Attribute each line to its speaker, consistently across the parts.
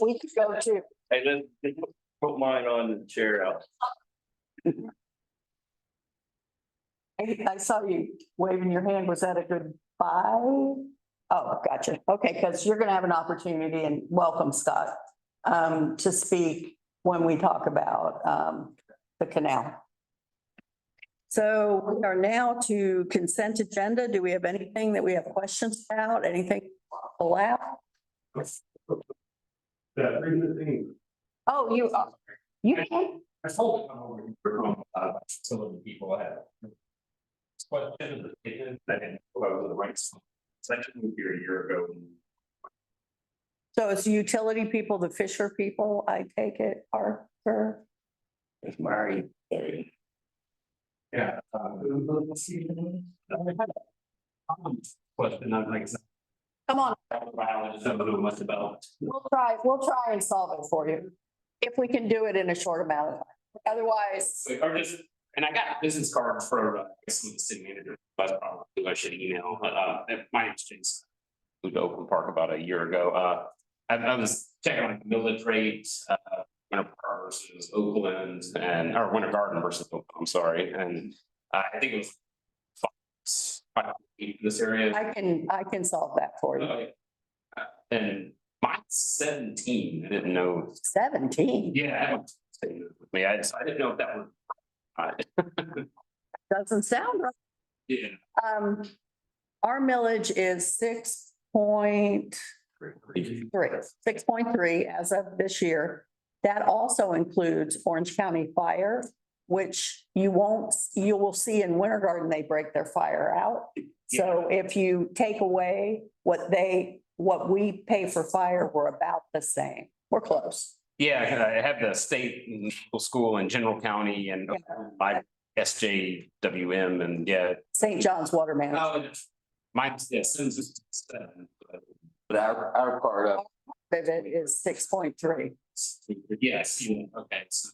Speaker 1: we could go to,
Speaker 2: Hey, then, then put mine on the chair out.
Speaker 1: I I saw you waving your hand. Was that a good bye? Oh, gotcha. Okay, because you're going to have an opportunity and welcome Scott um, to speak when we talk about um, the canal. So we are now to consent agenda. Do we have anything that we have questions about? Anything pull out?
Speaker 2: Yeah, bring the thing.
Speaker 1: Oh, you, you can.
Speaker 2: I told him I'm over here for home, uh, some of the people I had. But then the statement, I didn't go over to the rights. Section moved here a year ago.
Speaker 1: So it's utility people, the Fisher people, I take it, Parker. Where are you kidding?
Speaker 2: Yeah. uh, Um, Question, I'm like,
Speaker 1: Come on,
Speaker 2: some of them must about.
Speaker 1: We'll try, we'll try and solve it for you, if we can do it in a short amount of time. Otherwise,
Speaker 3: So, Or just, and I got a business card for uh, some of the city manager, but probably I should email, but uh, if my exchange. Moved to Oakland Park about a year ago, uh, I I was checking on millage rate, uh, Winter Park versus Oakland and, or Winter Garden versus Oakland, I'm sorry, and uh, I think it was. five- Five, eight in this area.
Speaker 1: I can, I can solve that for you.
Speaker 3: Okay. Uh, And mine's seventeen, I didn't know,
Speaker 1: Seventeen
Speaker 3: yeah, I haven't. I mean, I, so I didn't know if that would. uh,
Speaker 1: doesn't sound right.
Speaker 3: Yeah.
Speaker 1: Um, our millage is six point
Speaker 3: Three.
Speaker 1: three, six point three as of this year. That also includes Orange County Fire, which you won't, you will see in Winter Garden, they break their fire out. So if you take away what they, what we pay for fire, we're about the same. We're close.
Speaker 3: Yeah, I have the state and local school in general county and my S J W M and yeah.
Speaker 1: St. John's Water Management.
Speaker 3: Oh, and Mine's, yeah, Sims is seven. but-
Speaker 4: But our, our part of,
Speaker 1: It is six point three.
Speaker 3: Yes, you- okay. so-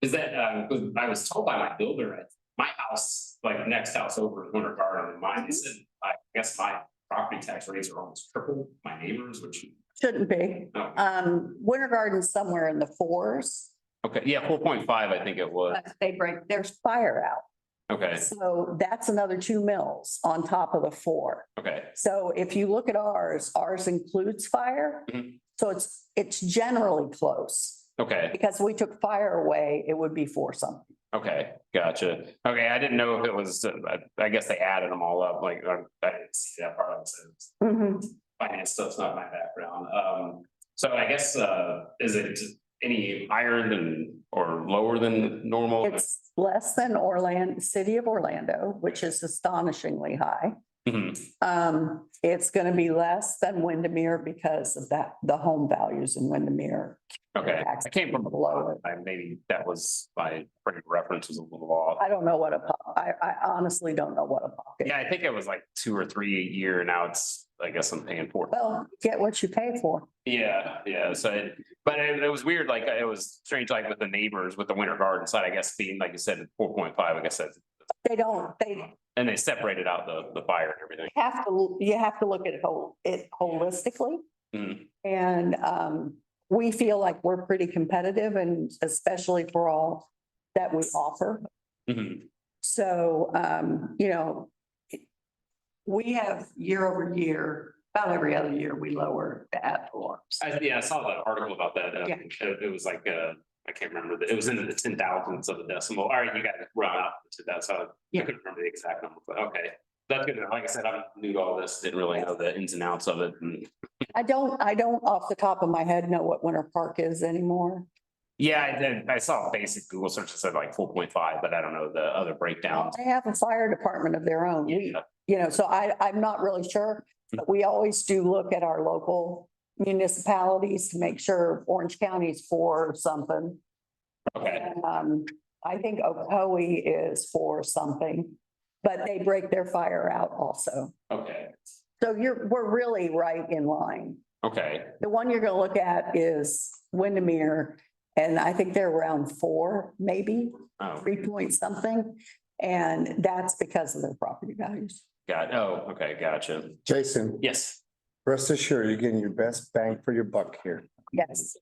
Speaker 3: Is that, uh, 'cause I was told by my builder, at my house, like next house over is Winter Garden and mine, is in- I guess my property tax rates are almost triple my neighbors, which.
Speaker 1: Shouldn't be.
Speaker 3: oh,
Speaker 1: Um, Winter Garden's somewhere in the fours.
Speaker 3: Okay, yeah, four point five, I think it was.
Speaker 1: but They break, there's fire out.
Speaker 3: Okay,
Speaker 1: So that's another two mills on top of the four.
Speaker 3: okay,
Speaker 1: So if you look at ours, ours includes fire.
Speaker 3: Mhm.
Speaker 1: So it's, it's generally close.
Speaker 3: okay.
Speaker 1: Because we took fire away, it would be four something.
Speaker 3: Okay, gotcha. Okay, I didn't know if it was, uh, I, I guess they added them all up, like, I I didn't see that part. so it's- Finance stuff's not my background. Um, so I guess, uh, is it any higher than or lower than normal?
Speaker 1: It's less than Orlando, city of Orlando, which is astonishingly high.
Speaker 3: Mhm,
Speaker 1: Um, it's gonna be less than Windermere because of that, the home values in Windermere.
Speaker 3: Okay, I came from
Speaker 1: Lower.
Speaker 3: below, I maybe that was my frame of reference was a little off.
Speaker 1: I don't know what a, po- I, I honestly don't know what a pocket.
Speaker 3: Yeah, I think it was like two or three a year. Now it's, I guess I'm paying for it.
Speaker 1: Well, get what you pay for.
Speaker 3: Yeah, yeah, so, it- but it, it was weird, like, it was strange, like with the neighbors, with the winter garden side, I guess, being, like you said, four point five, I guess that's.
Speaker 1: They don't, they
Speaker 3: And they separated out the, the fire and everything.
Speaker 1: have to, you have to look at it whole, it holistically.
Speaker 3: Mm,
Speaker 1: And um, we feel like we're pretty competitive and especially for all that we offer.
Speaker 3: mhm,
Speaker 1: So, um, you know, we have year over year, about every other year, we lower the ad valorem.
Speaker 3: I, yeah, I saw that article about that, uh,
Speaker 1: Yeah.
Speaker 3: it, it was like, uh, I can't remember, the- it was into the ten thousandths of a decimal, all right, you got it run out to that, so. I
Speaker 1: Yeah.
Speaker 3: couldn't remember the exact number, but okay, that's good, like I said, I'm new to all this, didn't really know the ins and outs of it, and
Speaker 1: I don't, I don't off the top of my head know what Winter Park is anymore.
Speaker 3: Yeah, I did. I saw a basic Google search that said like four point five, but I don't know the other breakdowns.
Speaker 1: They have a fire department of their own. We,
Speaker 3: Yeah,
Speaker 1: you know, so I, I'm not really sure. But we always do look at our local municipalities to make sure Orange County's for something.
Speaker 3: okay,
Speaker 1: Um, I think Ocoee is for something, but they break their fire out also.
Speaker 3: okay,
Speaker 1: So you're, we're really right in line.
Speaker 3: okay,
Speaker 1: The one you're gonna look at is Windermere, and I think they're around four, maybe
Speaker 3: oh,
Speaker 1: three point something. And that's because of their property values.
Speaker 3: got, oh, okay, gotcha,
Speaker 4: Jason,
Speaker 3: yes.
Speaker 4: rest assured, you're getting your best bang for your buck here.
Speaker 1: Yes.